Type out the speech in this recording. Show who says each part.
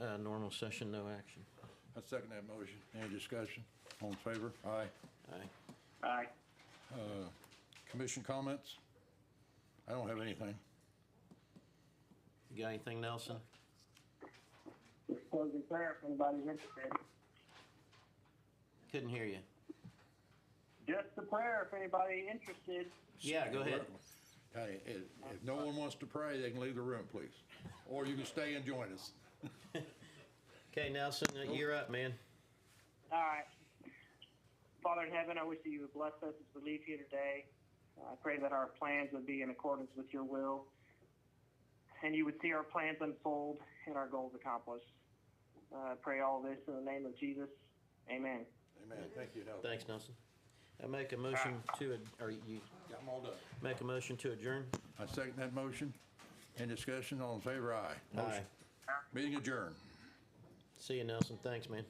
Speaker 1: uh, normal session, no action.
Speaker 2: I second that motion. Any discussion? All in favor? Aye.
Speaker 1: Aye.
Speaker 3: Aye.
Speaker 2: Commission comments? I don't have anything.
Speaker 1: You got anything, Nelson?
Speaker 3: Just closing prayer if anybody's interested.
Speaker 1: Couldn't hear you.
Speaker 3: Just the prayer if anybody interested.
Speaker 1: Yeah, go ahead.
Speaker 2: Hey, if, if no one wants to pray, they can leave the room, please. Or you can stay and join us.
Speaker 1: Okay, Nelson, uh, you're up, man.
Speaker 3: All right. Father in heaven, I wish that you would bless us as we leave here today. I pray that our plans would be in accordance with your will, and you would see our plans unfold and our goals accomplished. Uh, I pray all this in the name of Jesus. Amen.
Speaker 2: Amen. Thank you, Helen.
Speaker 1: Thanks, Nelson. I make a motion to, ad- or you
Speaker 2: Got them all done.
Speaker 1: make a motion to adjourn?
Speaker 2: I second that motion. Any discussion? All in favor? Aye.
Speaker 1: Aye.
Speaker 2: Meeting adjourned.
Speaker 1: See you, Nelson. Thanks, man.